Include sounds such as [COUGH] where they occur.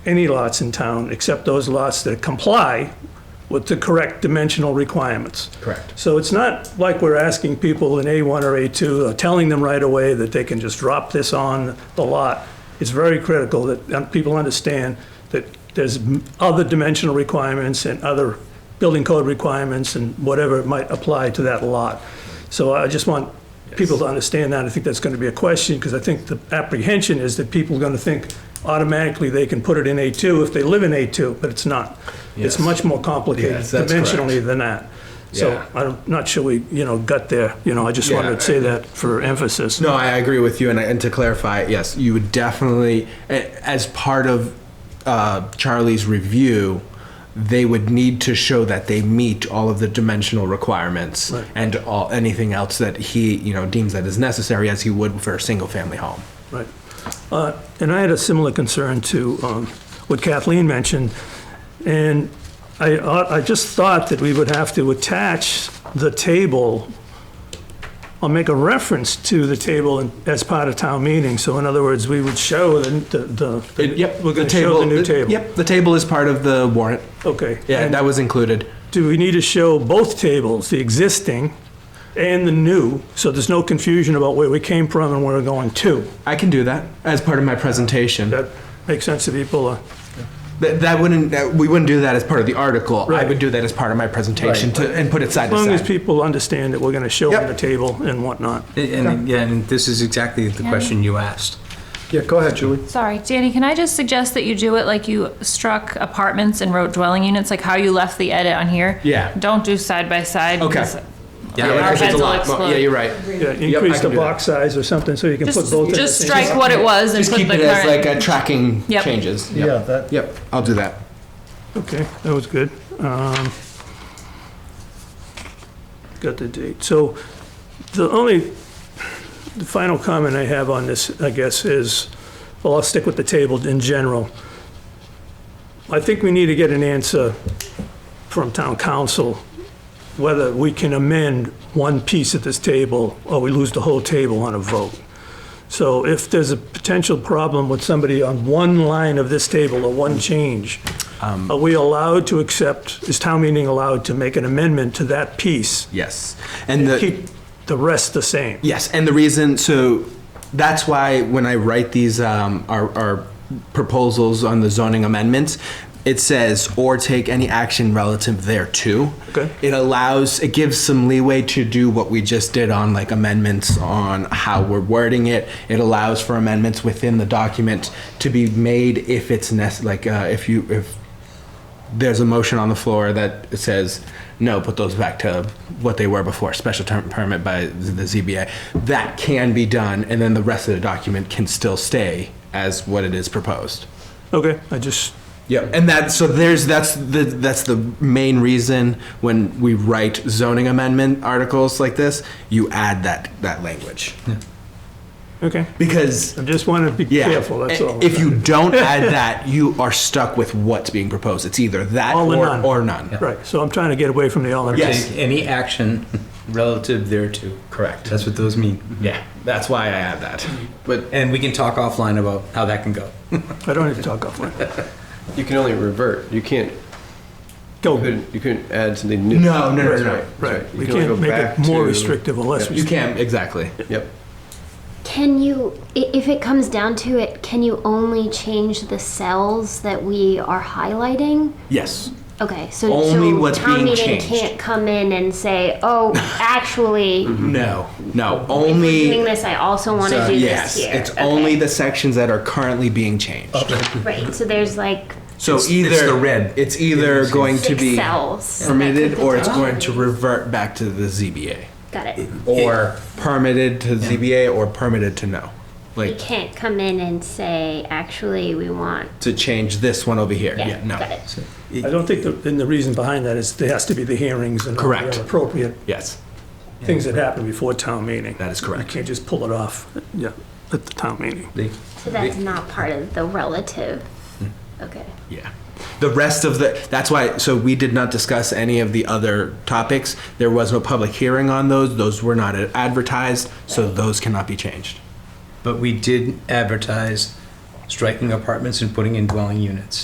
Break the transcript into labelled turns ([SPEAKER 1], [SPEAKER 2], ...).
[SPEAKER 1] any lots in town except those lots that comply with the correct dimensional requirements.
[SPEAKER 2] Correct.
[SPEAKER 1] So it's not like we're asking people in A1 or A2, uh, telling them right away that they can just drop this on the lot. It's very critical that um, people understand that there's m- other dimensional requirements and other building code requirements and whatever might apply to that lot. So I just want people to understand that. I think that's going to be a question, because I think the apprehension is that people are going to think automatically they can put it in A2 if they live in A2, but it's not. It's
[SPEAKER 2] Yes.
[SPEAKER 1] much more complicated
[SPEAKER 2] Yes, that's
[SPEAKER 1] dimensionally
[SPEAKER 2] correct.
[SPEAKER 1] than that. So
[SPEAKER 2] Yeah.
[SPEAKER 1] I'm not sure we, you know, got there, you know, I just wanted
[SPEAKER 2] Yeah.
[SPEAKER 1] to say that for emphasis.
[SPEAKER 2] No, I agree with you, and, and to clarify, yes, you would definitely, a- as part of uh, Charlie's review, they would need to show that they meet all of the dimensional requirements
[SPEAKER 1] Right.
[SPEAKER 2] and all anything else that he, you know, deems that is necessary, as he would for a single-family home.
[SPEAKER 1] Right. Uh, And I had a similar concern to um, what Kathleen mentioned, and I, uh, I just thought that we would have to attach the table or make a reference to the table in- as part of town meeting. So in other words, we would show the, the. the-
[SPEAKER 2] Yep,
[SPEAKER 1] We're going to show the new table.
[SPEAKER 2] Yep, the table is part of the warrant.
[SPEAKER 1] Okay.
[SPEAKER 2] Yeah,
[SPEAKER 1] And-
[SPEAKER 2] that was included.
[SPEAKER 1] Do we need to show both tables, the existing and the new, so there's no confusion about where we came from and where we're going to?
[SPEAKER 2] I can do that as part of my presentation.
[SPEAKER 1] That makes sense to people? uh,
[SPEAKER 2] That, that wouldn't, that, we wouldn't do that as part of the article. I
[SPEAKER 1] Right.
[SPEAKER 2] would do that as part of my presentation to, and put it side
[SPEAKER 1] As long
[SPEAKER 2] to
[SPEAKER 1] as
[SPEAKER 2] side.
[SPEAKER 1] people understand that we're going to show them
[SPEAKER 2] Yep.
[SPEAKER 1] the table and whatnot.
[SPEAKER 3] And, and yeah, and this is exactly the question you asked.
[SPEAKER 4] Yeah, go ahead, Julie.
[SPEAKER 5] Sorry, Danny, can I just suggest that you do it like you struck apartments and wrote dwelling units, like how you left the edit on here?
[SPEAKER 2] Yeah.
[SPEAKER 5] Don't do side by side.
[SPEAKER 2] Okay.
[SPEAKER 5] because
[SPEAKER 3] Yeah,
[SPEAKER 5] Our
[SPEAKER 2] Yeah,
[SPEAKER 5] heads
[SPEAKER 2] it's a
[SPEAKER 5] will
[SPEAKER 2] lot more-
[SPEAKER 5] explode.
[SPEAKER 2] Yeah, you're right.
[SPEAKER 1] Yeah, increase
[SPEAKER 2] can
[SPEAKER 1] the
[SPEAKER 2] do that.
[SPEAKER 1] box size or something, so you can put
[SPEAKER 5] Just,
[SPEAKER 1] both in the
[SPEAKER 5] just
[SPEAKER 1] same.
[SPEAKER 5] strike what it was and
[SPEAKER 2] Just
[SPEAKER 5] put the
[SPEAKER 2] keep it
[SPEAKER 5] current.
[SPEAKER 2] as like a tracking
[SPEAKER 5] Yep.
[SPEAKER 2] changes. Yep.
[SPEAKER 4] Yeah, that,
[SPEAKER 2] Yep, I'll do that.
[SPEAKER 1] Okay, that was good. Um, Got the date. So the only, the final comment I have on this, I guess, is, well, I'll stick with the table in general. I think we need to get an answer from town council whether we can amend one piece of this table or we lose the whole table on a vote. So if there's a potential problem with somebody on one line of this table or one change,
[SPEAKER 2] Um,
[SPEAKER 1] are we allowed to accept, is town meeting allowed to make an amendment to that piece?
[SPEAKER 2] Yes. And the.
[SPEAKER 1] Keep the rest the same?
[SPEAKER 2] Yes, and the reason so that's why when I write these um, our, our proposals on the zoning amendments, it says or take any action relative thereto.
[SPEAKER 1] Okay.
[SPEAKER 2] It allows it gives some leeway to do what we just did on like amendments on how we're wording it. It allows for amendments within the document to be made if it's nec- like uh, if you if there's a motion on the floor that says, no, put those back to what they were before, special term permit by the ZBA. That can be done, and then the rest of the document can still stay as what it is proposed.
[SPEAKER 1] Okay, I just,
[SPEAKER 2] Yep. And that, so there's, that's the, that's the main reason when we write zoning amendment articles like this, you add that, that language.
[SPEAKER 1] okay,
[SPEAKER 2] Because,
[SPEAKER 1] I just want to be
[SPEAKER 2] yeah.
[SPEAKER 1] careful, that's
[SPEAKER 2] i-
[SPEAKER 1] all.
[SPEAKER 2] If you don't add
[SPEAKER 1] [LAUGHS]
[SPEAKER 2] that, you are stuck with what's being proposed. It's either that
[SPEAKER 1] All or
[SPEAKER 2] or,
[SPEAKER 1] none.
[SPEAKER 2] or none.
[SPEAKER 1] Right, so I'm trying to get away from the all or
[SPEAKER 2] Yes.
[SPEAKER 3] Take any action relative thereto.
[SPEAKER 2] Correct.
[SPEAKER 3] That's what those mean.
[SPEAKER 2] Yeah, that's why I add that. But
[SPEAKER 3] And we can talk offline about how that can go.
[SPEAKER 1] I don't need to talk offline.
[SPEAKER 6] You can only revert. You can't,
[SPEAKER 1] Go,
[SPEAKER 6] you couldn't, you couldn't add something new.
[SPEAKER 2] no, no, no,
[SPEAKER 6] That's
[SPEAKER 2] no,
[SPEAKER 6] right,
[SPEAKER 2] no.
[SPEAKER 6] that's
[SPEAKER 1] right,
[SPEAKER 6] You
[SPEAKER 1] we
[SPEAKER 6] can only
[SPEAKER 1] can't
[SPEAKER 6] go
[SPEAKER 1] make
[SPEAKER 6] back
[SPEAKER 1] it more
[SPEAKER 6] to-
[SPEAKER 1] restrictive or less
[SPEAKER 2] You
[SPEAKER 1] restrictive.
[SPEAKER 2] can exactly.
[SPEAKER 6] Yep.
[SPEAKER 7] Can you, i- if it comes down to it, can you only change the cells that we are highlighting?
[SPEAKER 2] Yes.
[SPEAKER 7] Okay, so
[SPEAKER 2] Only
[SPEAKER 7] so
[SPEAKER 2] what's
[SPEAKER 7] town
[SPEAKER 2] being
[SPEAKER 7] meeting
[SPEAKER 2] changed.
[SPEAKER 7] can't come in and say,
[SPEAKER 2] [LAUGHS]
[SPEAKER 7] "Oh, actually, if
[SPEAKER 2] No. No.
[SPEAKER 7] we're doing
[SPEAKER 2] Mm-hmm. Only.
[SPEAKER 7] this. I also want to
[SPEAKER 2] So,
[SPEAKER 7] do
[SPEAKER 2] yes.
[SPEAKER 7] this here."
[SPEAKER 2] It's
[SPEAKER 7] Okay.
[SPEAKER 2] only the sections that are currently being changed.
[SPEAKER 7] right. So there's like
[SPEAKER 2] So
[SPEAKER 3] It's-
[SPEAKER 2] either
[SPEAKER 3] it's the red.
[SPEAKER 2] It's either going to
[SPEAKER 7] six
[SPEAKER 2] be
[SPEAKER 7] cells
[SPEAKER 2] permitted, or it's going to
[SPEAKER 7] potentially-
[SPEAKER 2] revert back to the ZBA,
[SPEAKER 7] Got it.
[SPEAKER 2] or permitted to ZBA, or permitted to no.
[SPEAKER 7] We
[SPEAKER 2] Like
[SPEAKER 7] can't come in and say, "Actually, we want."
[SPEAKER 2] to change this one over here.
[SPEAKER 7] Yeah,
[SPEAKER 2] Yeah. No.
[SPEAKER 7] got it.
[SPEAKER 1] I don't think, the- and the reason behind that is there has to be the hearings and all the
[SPEAKER 2] Correct.
[SPEAKER 1] appropriate
[SPEAKER 2] Yes.
[SPEAKER 1] things that happen before town meeting.
[SPEAKER 2] That is
[SPEAKER 1] You
[SPEAKER 2] correct.
[SPEAKER 1] can't just pull it off, yeah, at the town meeting.
[SPEAKER 7] So that's not part of the relative.
[SPEAKER 2] Hmm.
[SPEAKER 7] Okay.
[SPEAKER 2] Yeah. The rest of the, that's why, so we did not discuss any of the other topics. There was no public hearing on those. Those were not advertised, so those cannot be changed.
[SPEAKER 3] But we did advertise striking apartments and putting in dwelling units.